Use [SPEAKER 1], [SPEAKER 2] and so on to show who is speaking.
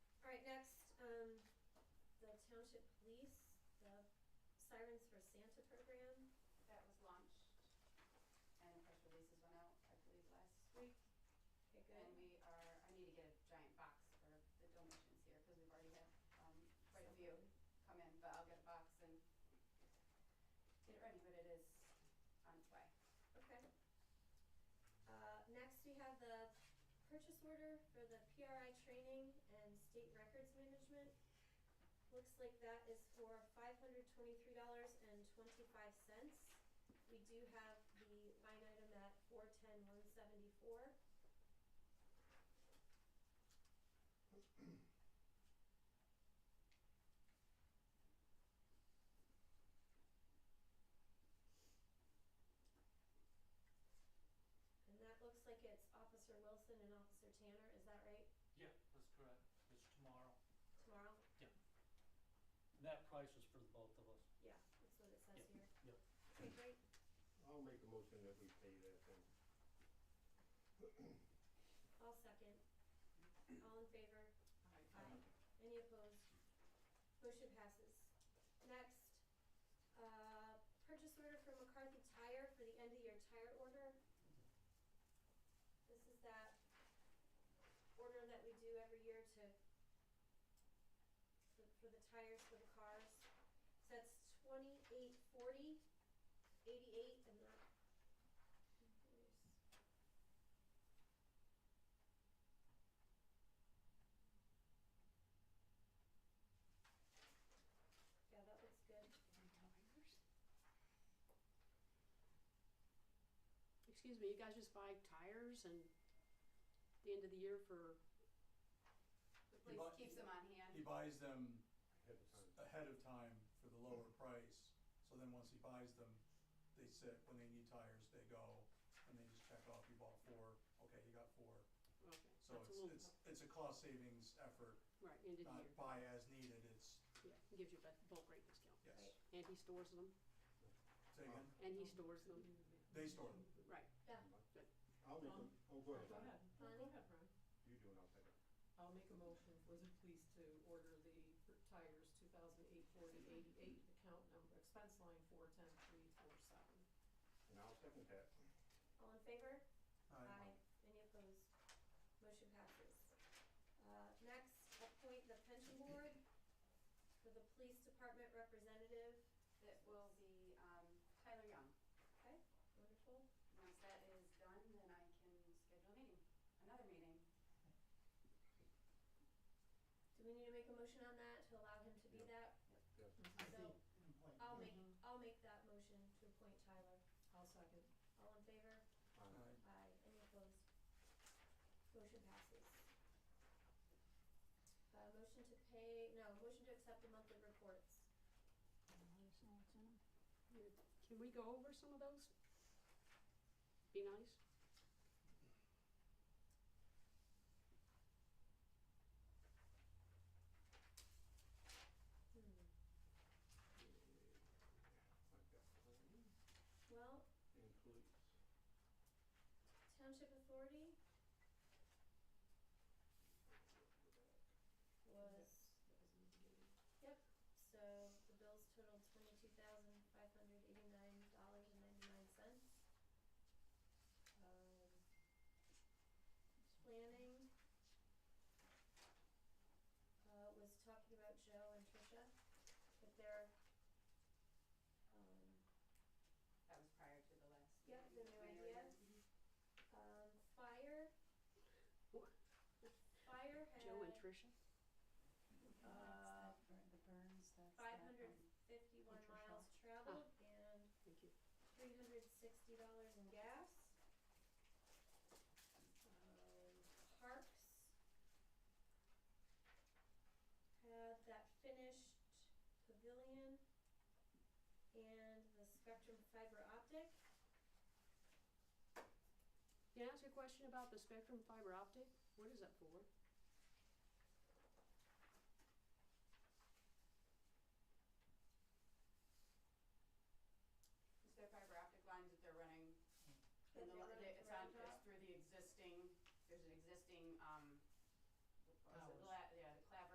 [SPEAKER 1] um, Township Police, the Sirens for Santa program.
[SPEAKER 2] that was launched and press releases went out, I believe, last week.
[SPEAKER 1] Okay,
[SPEAKER 2] And
[SPEAKER 1] good.
[SPEAKER 2] we are, I need to get a giant box for the donations here because we've already had, um, quite a few come in, but I'll get a box and get it ready, but it is on its way.
[SPEAKER 1] Okay. Uh, next, we have the purchase order for the PRI training and state records management. Looks like that is for five hundred twenty-three dollars and twenty-five cents. We do have the line item at four-ten, one-seventy-four. And that looks like it's Officer Wilson and Officer Tanner, is that right?
[SPEAKER 3] Yeah, that's correct. It's tomorrow.
[SPEAKER 1] Tomorrow?
[SPEAKER 3] And that price is for the both of us.
[SPEAKER 1] Yeah, that's what it says
[SPEAKER 3] Yep,
[SPEAKER 1] here.
[SPEAKER 3] yep.
[SPEAKER 1] Okay, great.
[SPEAKER 4] I'll make a motion that we pay that then.
[SPEAKER 1] I'll second. All in favor? Aye. Any opposed? Motion passes. Next, uh, purchase order for McCarthy Tire for the end of year tire order. This is that order that we do every year to, for, for the tires for the cars. So that's twenty-eight forty, eighty-eight, and that. Yeah, that looks good.
[SPEAKER 5] Excuse me, you guys just buy tires and the end of the year for,
[SPEAKER 2] The
[SPEAKER 6] You
[SPEAKER 2] police
[SPEAKER 6] bought-
[SPEAKER 2] keeps them on
[SPEAKER 6] He
[SPEAKER 2] hand.
[SPEAKER 6] buys them
[SPEAKER 4] Ahead of
[SPEAKER 6] s-
[SPEAKER 4] time.
[SPEAKER 6] ahead of time for the lower price, so then once he buys them, they sit, when they need tires, they go, and they just check off, you bought four, okay, you got four.
[SPEAKER 5] okay,
[SPEAKER 6] So
[SPEAKER 5] that's a
[SPEAKER 6] it's,
[SPEAKER 5] little,
[SPEAKER 6] it's, it's a cost savings effort,
[SPEAKER 5] right, end of the year.
[SPEAKER 6] not buy as needed, it's,
[SPEAKER 5] Yeah, it gives you a bu- bulk rate discount.
[SPEAKER 6] yes.
[SPEAKER 5] And he stores them,
[SPEAKER 6] Say again,
[SPEAKER 5] and he stores them,
[SPEAKER 6] they store them,
[SPEAKER 5] right.
[SPEAKER 1] Yeah,
[SPEAKER 4] I'll make a,
[SPEAKER 7] Um,
[SPEAKER 4] oh, go ahead.
[SPEAKER 7] Go ahead, No,
[SPEAKER 1] Bonnie?
[SPEAKER 7] go ahead, Ron.
[SPEAKER 4] You do it, I'll second.
[SPEAKER 7] I'll make a motion for the police to order the tires two thousand eight forty eighty-eight, account number, expense line four ten three four seven.
[SPEAKER 4] And I'll second that.
[SPEAKER 1] all in favor?
[SPEAKER 6] Aye.
[SPEAKER 1] Any opposed? Motion passes. Uh, next, appoint the pension board for the police department representative.
[SPEAKER 2] That will be, um, Tyler Young.
[SPEAKER 1] Okay, wonderful.
[SPEAKER 2] Once that is done, then I can schedule a meeting, another meeting.
[SPEAKER 1] Do we need to make a motion on that to allow him to be that?
[SPEAKER 4] Yes.
[SPEAKER 1] So, I'll make, I'll make that motion to appoint Tyler.
[SPEAKER 7] I'll second.
[SPEAKER 1] All in favor?
[SPEAKER 4] Aye.
[SPEAKER 6] Aye.
[SPEAKER 1] Aye. Any opposed? Motion passes. Uh, motion to pay, no, motion to accept the monthly reports.
[SPEAKER 5] You- Can we go over some of those? Be nice.
[SPEAKER 1] Hmm.
[SPEAKER 4] Like that.
[SPEAKER 1] Well,
[SPEAKER 4] And police.
[SPEAKER 1] Township Authority was,
[SPEAKER 7] That was in the beginning.
[SPEAKER 1] so the bills totaled twenty-two thousand five hundred eighty-nine dollars and ninety-nine cents. Um, planning, uh, was talking about Joe and Tricia, but they're, um,
[SPEAKER 2] That was prior to the last.
[SPEAKER 1] Yeah,
[SPEAKER 2] meeting
[SPEAKER 1] the new
[SPEAKER 2] when they were here.
[SPEAKER 1] idea.
[SPEAKER 2] Mhm.
[SPEAKER 1] um, fire.
[SPEAKER 5] What?
[SPEAKER 1] Fire had.
[SPEAKER 5] Joe and Tricia,
[SPEAKER 2] Uh, the burns, that's.
[SPEAKER 1] five hundred fifty-one
[SPEAKER 2] Contra
[SPEAKER 1] miles traveled
[SPEAKER 5] Ah.
[SPEAKER 1] and
[SPEAKER 5] thank you.
[SPEAKER 1] three hundred sixty dollars in gas. Um, Parks had that finished pavilion and the Spectrum fiber optic.
[SPEAKER 5] Can I ask you a question about the Spectrum fiber optic? What is that for?
[SPEAKER 1] um, uh,